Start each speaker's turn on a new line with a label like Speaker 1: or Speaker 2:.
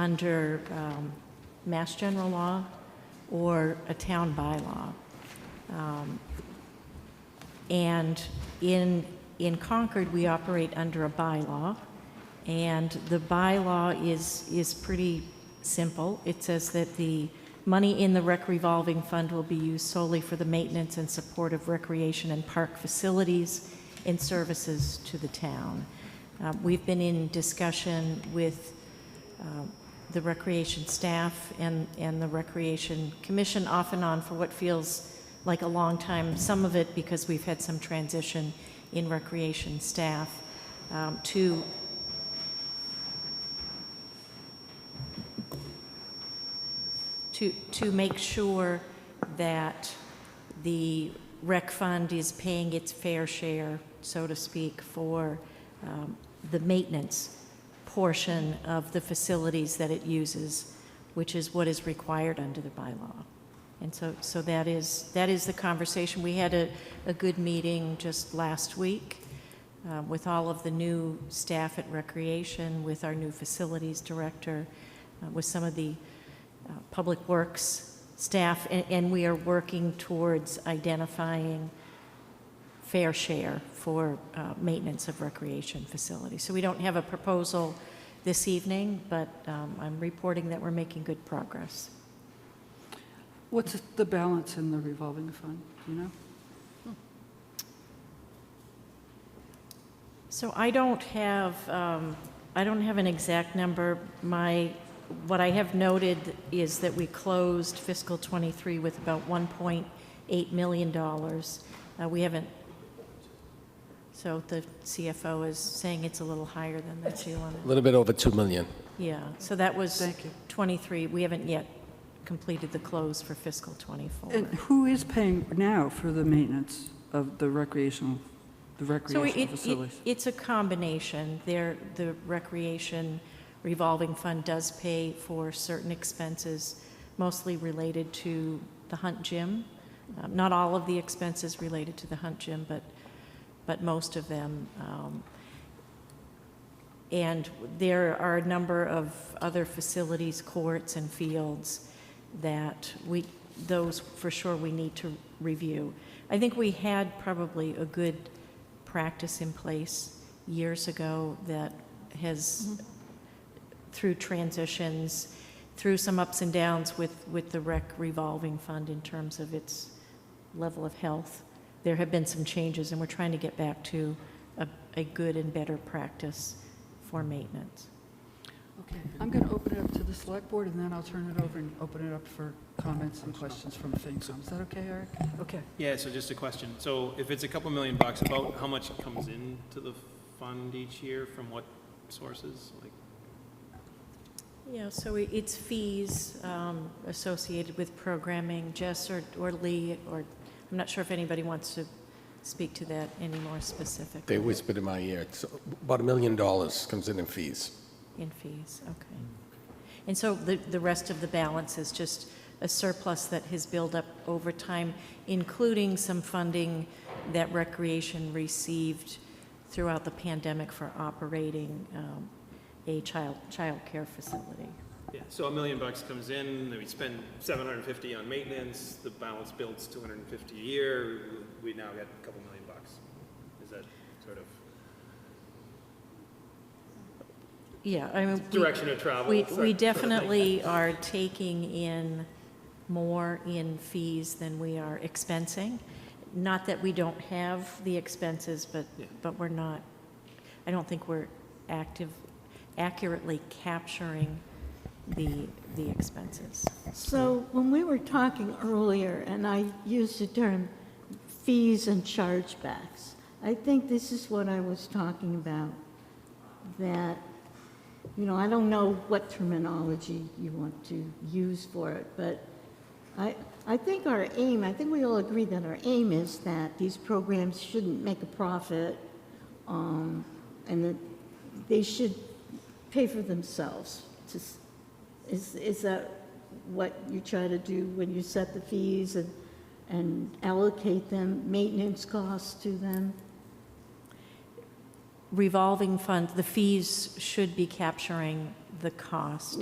Speaker 1: under um, Mass General Law or a town bylaw. Um, And in, in Concord, we operate under a bylaw, and the bylaw is, is pretty simple. It says that the money in the rec revolving fund will be used solely for the maintenance and support of recreation and park facilities and services to the town. Uh, We've been in discussion with um, the recreation staff and, and the recreation commission off and on for what feels like a long time, some of it because we've had some transition in recreation staff, um, to to, to make sure that the rec fund is paying its fair share, so to speak, for um, the maintenance portion of the facilities that it uses, which is what is required under the bylaw. And so, so that is, that is the conversation. We had a, a good meeting just last week uh, with all of the new staff at Recreation, with our new facilities director, uh, with some of the uh, Public Works staff, a- and we are working towards identifying fair share for uh, maintenance of recreation facilities. So we don't have a proposal this evening, but um, I'm reporting that we're making good progress.
Speaker 2: What's the balance in the revolving fund, do you know?
Speaker 1: So I don't have, um, I don't have an exact number. My, what I have noted is that we closed fiscal '23 with about $1.8 million. Uh, We haven't, so the CFO is saying it's a little higher than that, Sheila.
Speaker 3: A little bit over 2 million.
Speaker 1: Yeah, so that was
Speaker 2: Thank you.
Speaker 1: '23. We haven't yet completed the close for fiscal '24.
Speaker 2: And who is paying now for the maintenance of the recreational, the
Speaker 1: So it,
Speaker 2: recreational
Speaker 1: it-
Speaker 2: facilities?
Speaker 1: it's a combination. There, the recreation revolving fund does pay for certain expenses, mostly related to the Hunt Gym. Um, Not all of the expenses related to the Hunt Gym, but, but most of them. Um, And there are a number of other facilities, courts and fields, that we, those for sure we need to review. I think we had probably a good practice in place years ago that has, through transitions, through some ups and downs with, with the rec revolving fund in terms of its level of health, there have been some changes, and we're trying to get back to a, a good and better practice for maintenance.
Speaker 2: Okay, I'm going to open it up to the select board, and then I'll turn it over and open it up for comments and questions from FinCom. Is that okay, Eric? Okay.
Speaker 4: Yeah, so just a question. So if it's a couple million bucks, about how much comes into the fund each year from what sources? Like,
Speaker 1: Yeah, so i- it's fees um, associated with programming, Jess or or Lee, or, I'm not sure if anybody wants to speak to that any more
Speaker 3: They
Speaker 1: specifically
Speaker 3: whispered in my ear, it's about a million dollars comes in in fees.
Speaker 1: in fees, okay. And so the, the rest of the balance is just a surplus that has built up over time, including some funding that Recreation received throughout the pandemic for operating um, a child, childcare facility.
Speaker 4: yeah, so a million bucks comes in, then we spend seven hundred and fifty on maintenance, the balance builds two hundred and fifty a year, we now get a couple million bucks. Is that sort of
Speaker 1: Yeah, I mean. we-
Speaker 4: direction of travel?
Speaker 1: We,
Speaker 4: sort
Speaker 1: we
Speaker 4: of thing?
Speaker 1: definitely are taking in more in fees than we are expensing. Not that we don't have the expenses, but,
Speaker 4: Yeah.
Speaker 1: but we're not, I don't think we're active, accurately capturing the, the expenses.
Speaker 5: So when we were talking earlier, and I used the term fees and chargebacks, I think this is what I was talking about, that, you know, I don't know what terminology you want to use for it, but I, I think our aim, I think we all agree that our aim is that these programs shouldn't make a profit, um, and that they should pay for themselves. to s- Is, is that what you try to do when you set the fees and, and allocate them, maintenance costs to them?
Speaker 1: Revolving fund, the fees should be capturing the cost